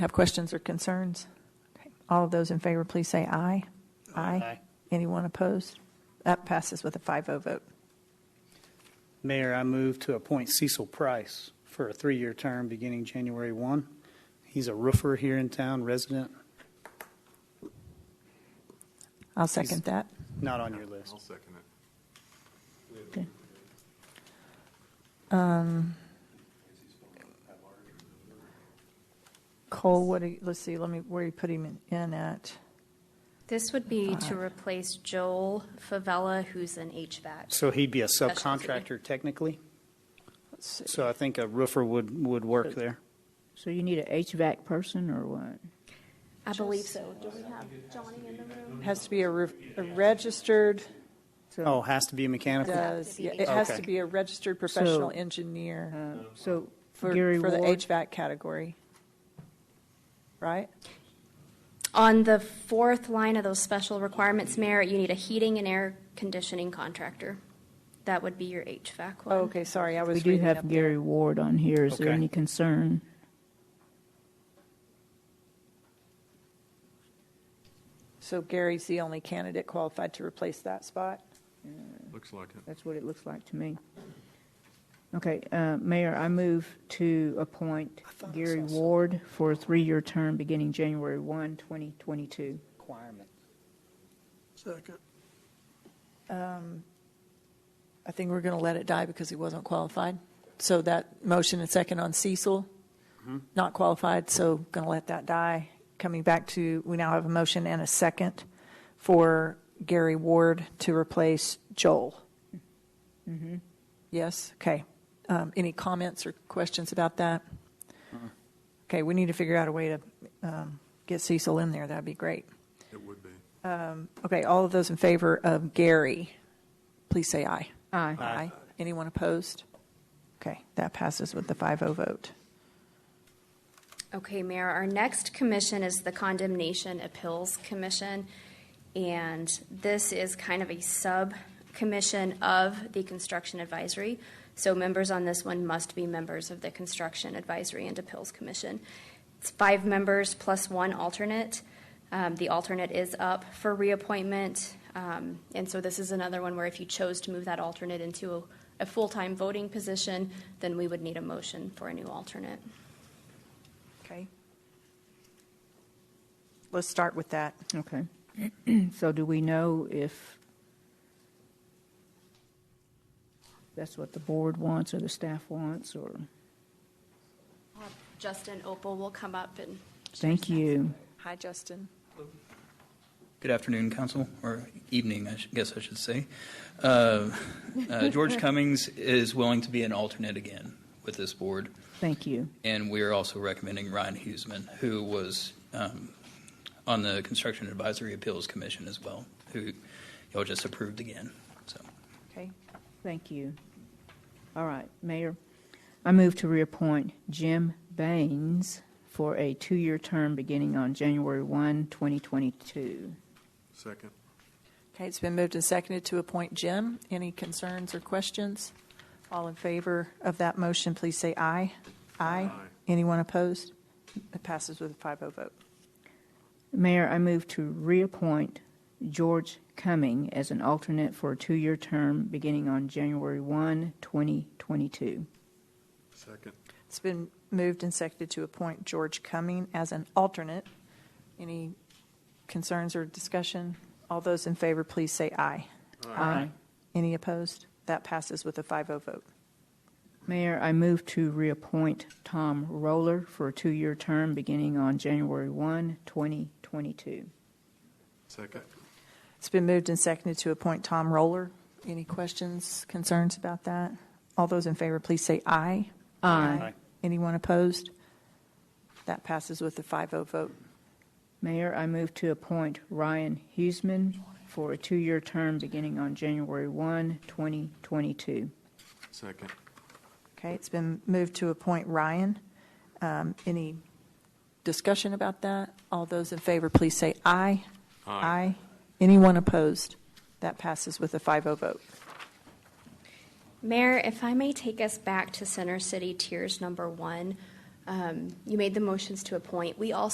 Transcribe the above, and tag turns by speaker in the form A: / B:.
A: Have questions or concerns? Okay. All of those in favor, please say aye.
B: Aye.
A: Anyone opposed? That passes with a 5-0 vote.
B: Mayor, I move to appoint Cecil Price for a three-year term beginning January 1. He's a roofer here in town, resident,
A: I'll second that.
B: not on your list.
C: I'll second it.
A: Okay. Um, Cole, what do you, let's see, let me, where you put him in at?
D: This would be to replace Joel Favela, who's an HVAC.
B: So he'd be a
D: Specialty.
B: subcontractor technically,
A: Let's see.
B: so I think a roofer would, would work there.
E: So you need a HVAC person or what?
D: I believe so. Do we have Johnny in the room?
A: Has to be a re- a registered,
B: Oh, has to be a mechanical?
A: does, yeah, it has to
B: Okay.
A: be a registered professional
E: So-
A: engineer
E: Uh, So
A: for,
E: Gary
A: for the
E: Ward,
A: HVAC category. Right?
D: On the fourth line of those special requirements, Mayor, you need a heating and air conditioning contractor. That would be your HVAC one.
A: Oh, Okay, sorry, I was
E: we do
A: reading up
E: have
A: there.
E: Gary Ward on here. Is there
B: Okay.
E: any concern?
A: So Gary's the only candidate qualified to replace that spot?
C: Looks like it.
E: That's what it looks like to me. Okay, uh, Mayor, I move to appoint
B: thought I
E: Gary
B: saw some-
E: Ward for a three-year term beginning January 1, 2022.
B: Requirement.
A: I think we're going to let it die because he wasn't qualified. So that motion and second on Cecil, not qualified, so going to let that die. Coming back to, we now have a motion and a second for Gary Ward to replace Joel. Yes, okay. Um, Any comments or questions about that? Okay, we need to figure out a way to um, get Cecil in there, that'd be great.
C: It would be.
A: Okay, all of those in favor of Gary, please say aye.
E: Aye.
A: Aye. Anyone opposed? Okay, that passes with the 5-0 vote.
D: Okay, Mayor, our next commission is the Condemnation Appeals Commission, and this is kind of a sub-commission of the Construction Advisory. So members on this one must be members of the Construction Advisory and Appeals Commission. It's five members plus one alternate. Um, The alternate is up for reappointment, um, and so this is another one where if you chose to move that alternate into a- a full-time voting position, then we would need a motion for a new alternate.
A: Okay. Let's start with that.
E: Okay. So do we know if that's what the board wants or the staff wants, or?
D: Justin Opal will come up and.
E: Thank you.
A: Hi, Justin.
F: Good afternoon, council, or evening, I sh- guess I should say. Uh, uh, George Cummings is willing to be an alternate again with this board,
E: Thank you.
F: and we are also recommending Ryan Huseman, who was um, on the Construction Advisory Appeals Commission as well, who y'all just approved again, so.
A: Okay.
E: Thank you. All right, Mayor, I move to reappoint Jim Baines for a two-year term beginning on January 1, 2022.
C: Second.
A: Okay, it's been moved and seconded to appoint Jim. Any concerns or questions? All in favor of that motion, please say aye. Aye.
C: Aye.
A: Anyone opposed? It passes with a 5-0 vote.
E: Mayor, I move to reappoint George Cumming as an alternate for a two-year term beginning on January 1, 2022.
C: Second.
A: It's been moved and seconded to appoint George Cumming as an alternate. Any concerns or discussion? All those in favor, please say aye.
E: Aye.
A: Any opposed? That passes with a 5-0 vote.
E: Mayor, I move to reappoint Tom Roller for a two-year term beginning on January 1, 2022.
C: Second.
A: It's been moved and seconded to appoint Tom Roller. Any questions, concerns about that? All those in favor, please say aye.
B: Aye.
A: Anyone opposed? That passes with a 5-0 vote.
E: Mayor, I move to appoint Ryan Huseman for a two-year term beginning on January 1, 2022.
C: Second.
A: Okay, it's been moved to appoint Ryan. Um, Any discussion about that? All those in favor, please say aye. Aye. Anyone opposed? That passes with a 5-0 vote.
D: Mayor, if I may take us back to Center City Tiers Number One, um, Um, You made the motions to appoint. We also